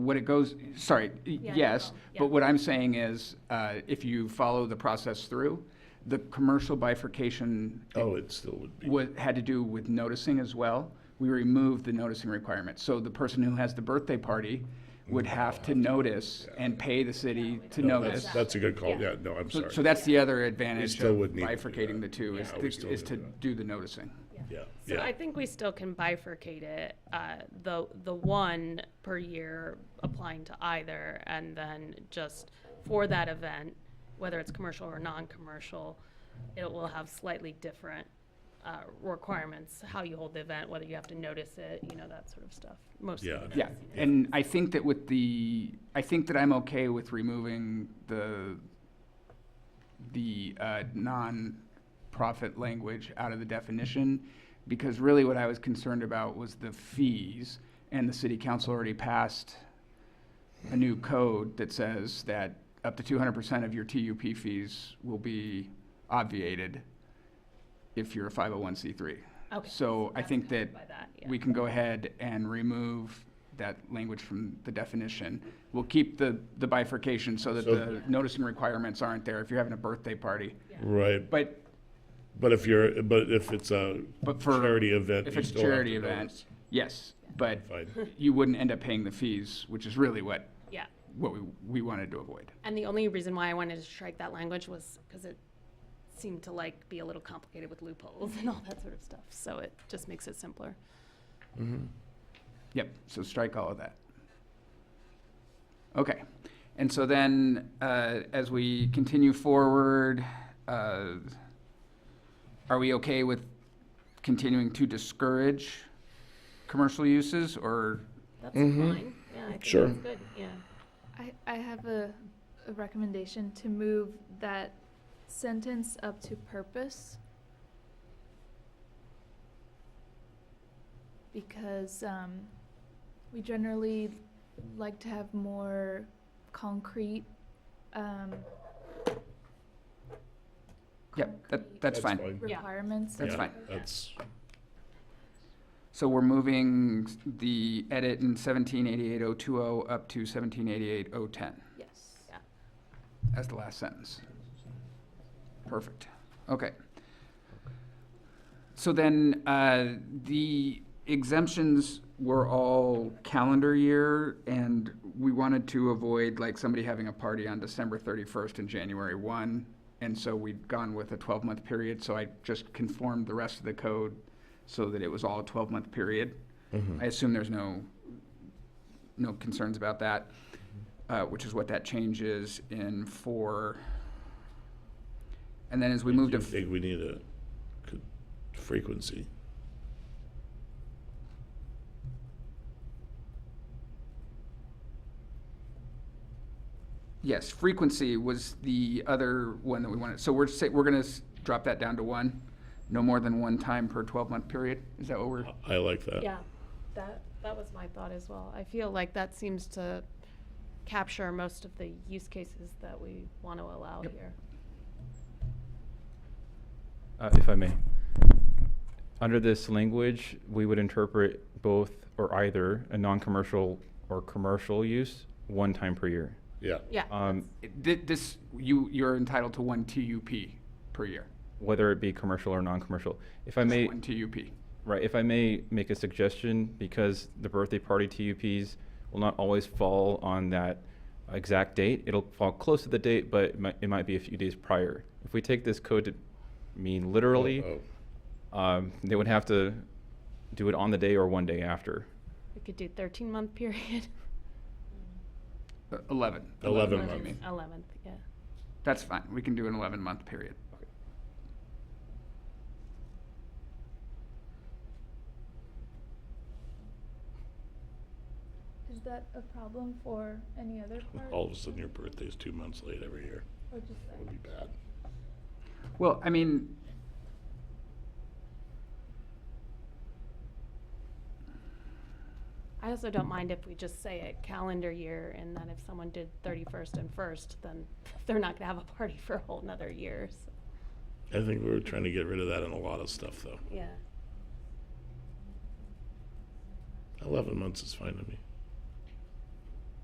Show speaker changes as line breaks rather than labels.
What it goes, sorry,
no
yes,
problem.
but
Yeah.
what I'm saying is, uh, if you follow the process through, the commercial bifurcation
Oh, it still would be.
wa- had to do with noticing as well. We removed the noticing requirement. So the person who has the birthday party would have to notice and pay the city to
No,
notice.
Mm. that's- That's a good call,
Yeah.
yeah, no, I'm
So
sorry.
so that's the other advantage
still
of
would need to do
bifurcating the
that.
two, is
Yeah, we
to-
still
is
need
to
to do that.
do the noticing.
Yeah,
So I
yeah,
think we still can bifurcate it, uh, the, the one per year applying to either, and then just for that event, whether it's commercial or non-commercial, it will have slightly different, uh, requirements, how you hold the event, whether you have to notice it, you know, that sort of stuff, most
Yeah.
of it.
Yeah, and I think that with the, I think that I'm okay with removing the, the uh, non-profit language out of the definition, because really what I was concerned about was the fees, and the city council already passed a new code that says that up to two hundred percent of your TUP fees will be obviated if you're a five oh one C three.
Okay.
So I
That's
think
covered
that
by yeah.
we can go ahead and remove that language from the definition. We'll keep the, the bifurcation so that
So-
the noticing requirements aren't there if you're having a birthday party.
right,
But,
but if you're, but if it's a
but for,
charity event.
if
you
it's a
still have
charity
to
event,
notice.
yes, but
Fine.
you wouldn't end up paying the fees, which is really what,
Yeah.
what we, we wanted to avoid.
And the only reason why I wanted to strike that language was because it seemed to like be a little complicated with loopholes and all that sort of stuff. So it just makes it simpler.
Yep, so strike all of that. Okay, and so then, uh, as we continue forward, uh, are we okay with continuing to discourage commercial uses, or,
That's fine. Yeah, I think
Sure.
that's good. Yeah.
I, I have a, a recommendation to move that sentence up to purpose. Because, um, we generally like to have more concrete, um,
yep, that,
concrete
that's fine.
Yeah.
Requirements.
That's
Yeah,
fine.
That's,
So we're moving s- the edit in seventeen eighty-eight oh two oh up to seventeen eighty-eight oh ten.
Yes.
Yeah.
as the last sentence. Perfect. Okay. So then, uh, the exemptions were all calendar year, and we wanted to avoid like somebody having a party on December thirty-first and January one. And so we'd gone with a twelve-month period, so I just conformed the rest of the code so that it was all a twelve-month period. I assume there's no, no concerns about that uh, which is what that change is in four. And then as we move
I
to,
think we need a c- frequency.
yes, frequency was the other one that we wanted. So we're say, we're gonna s- drop that down to one, no more than one time per twelve-month period? Is that what we're,
I- I like that.
Yeah. That, that was my thought as well. I feel like that seems to capture most of the use cases that we want to allow
Yep.
here.
Uh, If I may. Under this language, we would interpret both or either a non-commercial or commercial use one time per year.
Yeah,
Yeah.
Um,
It- thi- this, you, you're entitled to one TUP per year.
Whether it be commercial or non-commercial. If I
Just
may,
One TUP.
right, if I may make a suggestion, because the birthday party TUPs will not always fall on that exact date. It'll fall close to the date, but it might, it might be a few days prior. If we take this code to mean literally,
Uh-oh.
um, they would have to do it on the day or one day after.
We could do thirteen month period.
Uh, Eleven.
11
months, you
months.
mean.
Eleventh, yeah.
That's fine, we can do an eleven-month period.
Is that a problem for any other part?
all of a sudden your birthday's two months late every year.
Or just
That
like?
would be bad.
Well, I mean.
I also don't mind if we just say it calendar year and then if someone did thirty-first and first, then they're not gonna have a party for a whole nother year, so,
I think we were trying to get rid of that in a lot of stuff, though.
yeah.
11 months is fine to me.